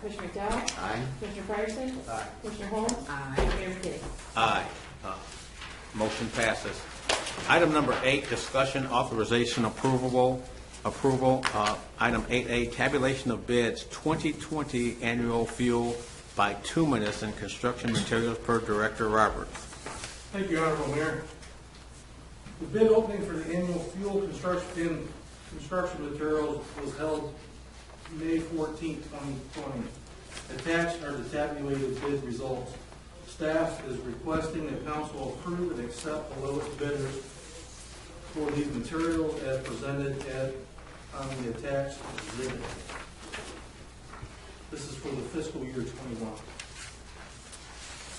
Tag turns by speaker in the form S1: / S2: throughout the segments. S1: Commissioner McDowell?
S2: Aye.
S1: Commissioner Fryerson?
S2: Aye.
S1: Commissioner Holmes?
S3: Aye.
S1: Mayor McKinney?
S4: Aye. Uh, Motion passes. Item number eight, discussion authorization approval, approval, uh, item 8A, tabulation of bids 2020 annual fuel bituminous and construction materials per Director Roberts.
S5: Thank you, Honorable Mayor. The bid opening for the annual fuel construction, construction materials was held May 14, 2020. Attached are the tabulated bid results. Staff is requesting that council approve and accept the lowest bidders for these materials as presented at, on the attached exhibit. This is for the fiscal year 21.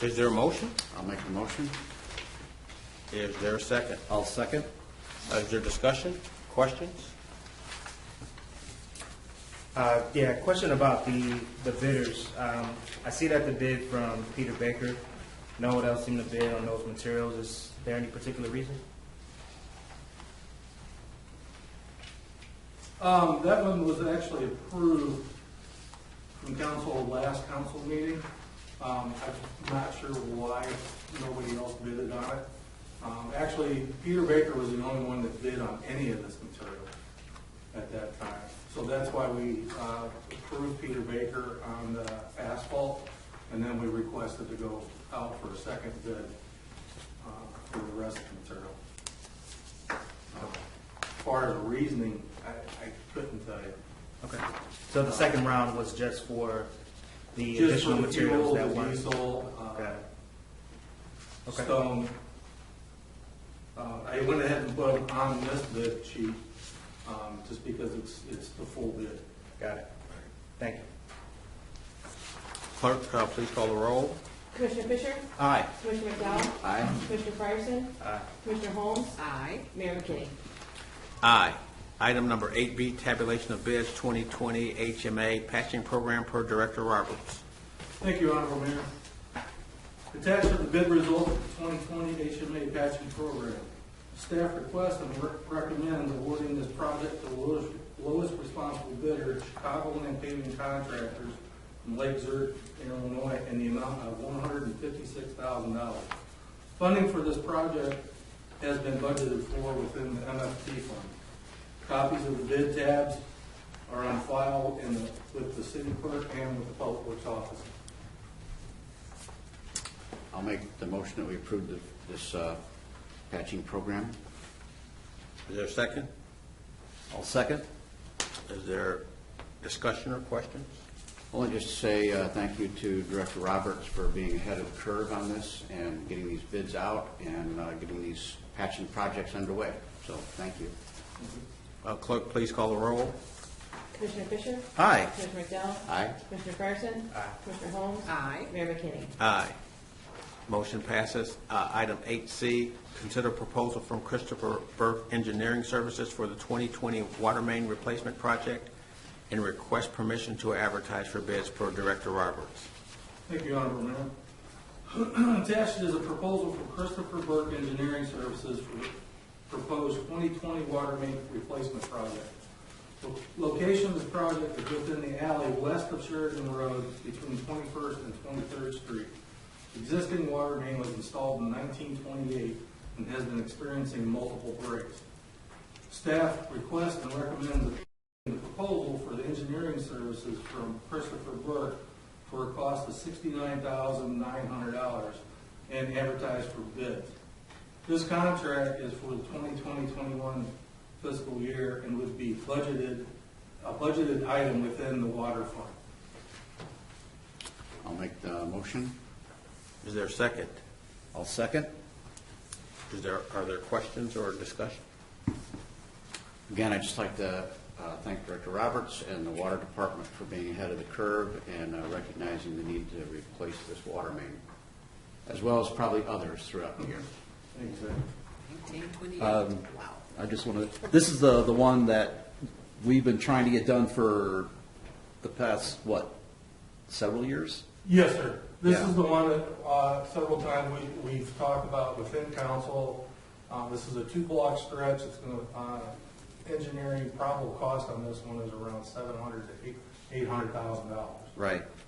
S4: Is there a motion?
S2: I'll make the motion.
S4: Is there a second?
S2: I'll second.
S4: Is there discussion, questions?
S6: Uh, Yeah, question about the, the bidders. Um, I see that the bid from Peter Baker, no one else seemed to bid on those materials. Is there any particular reason?
S5: Um, that one was actually approved from council last council meeting. Um, I'm not sure why nobody else bidded on it. Um, actually, Peter Baker was the only one that bid on any of this material at that time. So that's why we, uh, approved Peter Baker on the asphalt, and then we requested to go out for a second bid, uh, for the rest of the material. Um, As far as reasoning, I, I couldn't tell you.
S6: Okay. So the second round was just for the
S5: Just for
S6: additional
S5: the fuel,
S6: materials
S5: the
S6: that weren't?
S5: diesel, uh,
S6: Got it. Okay.
S5: stone. Uh, I went ahead and put them on this bid sheet, um, just because it's, it's the full bid.
S6: Got it. Thank you.
S4: Clerk, uh, please call the roll.
S1: Commissioner Fisher?
S4: Aye.
S1: Commissioner McDowell?
S2: Aye.
S1: Commissioner Fryerson?
S6: Aye.
S1: Commissioner Holmes?
S3: Aye.
S1: Mayor McKinney?
S4: Aye. Item number 8B, tabulation of bids 2020 HMA patching program per Director Roberts.
S5: Thank you, Honorable Mayor. Attached are the bid results of the 2020 HMA patching program. Staff requests and re- recommend awarding this project to the lowest- lowest responsible bidder, Chicago Land Paving Contractors from Lake Zurich, Illinois, in the amount of $156,000. Funding for this project has been budgeted for within the MFT fund. Copies of the bid tabs are on file in the- with the city clerk and with the public works office.
S2: I'll make the motion that we approve the- this uh, patching program.
S4: Is there a second?
S2: I'll second.
S4: Is there discussion or questions?
S2: Only just to say uh, thank you to Director Roberts for being ahead of the curve on this and getting these bids out and uh, getting these patching projects underway. So thank you.
S4: Uh, Clerk, please call the roll.
S1: Commissioner Fisher?
S4: Aye.
S1: Commissioner McDowell?
S2: Aye.
S1: Commissioner Fryerson? Aye. Commissioner Holmes?
S3: Aye.
S1: Mayor McKinney?
S4: Aye. Motion passes. Uh, Item 8C, consider proposal from Christopher Burke Engineering Services for the 2020 water main replacement project and request permission to advertise for bids per Director Roberts.
S5: Thank you, Honorable Mayor. Attached is a proposal from Christopher Burke Engineering Services for proposed 2020 water main replacement project. Lo- Location of this project is within the alley west of Sheridan Road between 21st and 23rd Street. Existing water main was installed in 1928 and has been experiencing multiple breaks. Staff requests and recommends the proposal for the engineering services from Christopher Burke for a cost of sixty-nine thousand nine hundred dollars and advertised for bids. This contract is for the 2020-21 fiscal year and would be budgeted, a budgeted item within the water fund.
S2: I'll make the motion.
S4: Is there a second?
S2: I'll second.
S4: Is there, are there questions or discussion?
S2: Again, I'd just like to uh, thank Director Roberts and the Water Department for being ahead of the curve and uh, recognizing the need to replace this water main, as well as probably others throughout the year.
S5: Exactly.
S3: Nineteen twenty-eight.
S7: Um,
S3: Wow.
S7: I just want to, this is the, the one that we've been trying to get done for the past, what, several years?
S5: Yes, sir. This
S7: Yeah.
S5: is the one that uh, several times we- we've talked about within council. Uh, This is a two-block stretch. It's uh, going to, engineering probable cost on this one is around seven hundred to eight- $800,000.
S2: right?